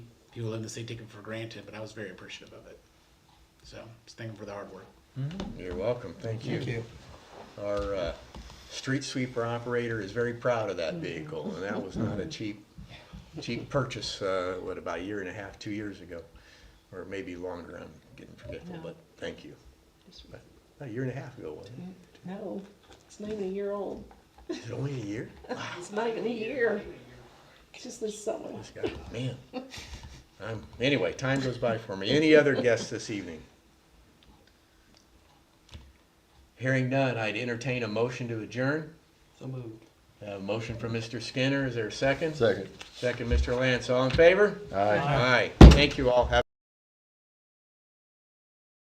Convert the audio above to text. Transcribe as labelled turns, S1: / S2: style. S1: people in the city take it for granted, but I was very appreciative of it. So, just thank them for the hard work.
S2: You're welcome, thank you. Our uh, street sweeper operator is very proud of that vehicle, and that was not a cheap, cheap purchase, uh, what, about a year and a half, two years ago? Or maybe longer, I'm getting forgetful, but thank you. But A year and a half ago, wasn't
S3: No, it's not even a year old.
S2: it? Is it only a year?
S3: It's not even a year. It's just this summer.
S2: This guy, man. I'm, anyway, time goes by for me. Any other guests this evening? Hearing none, I'd entertain a motion to adjourn.
S4: So moved.
S2: A motion from Mr. Skinner, is there a second?
S5: Second.
S2: Second, Mr. Lance, all in favor?
S5: Aye.
S2: Aye. Thank you all, have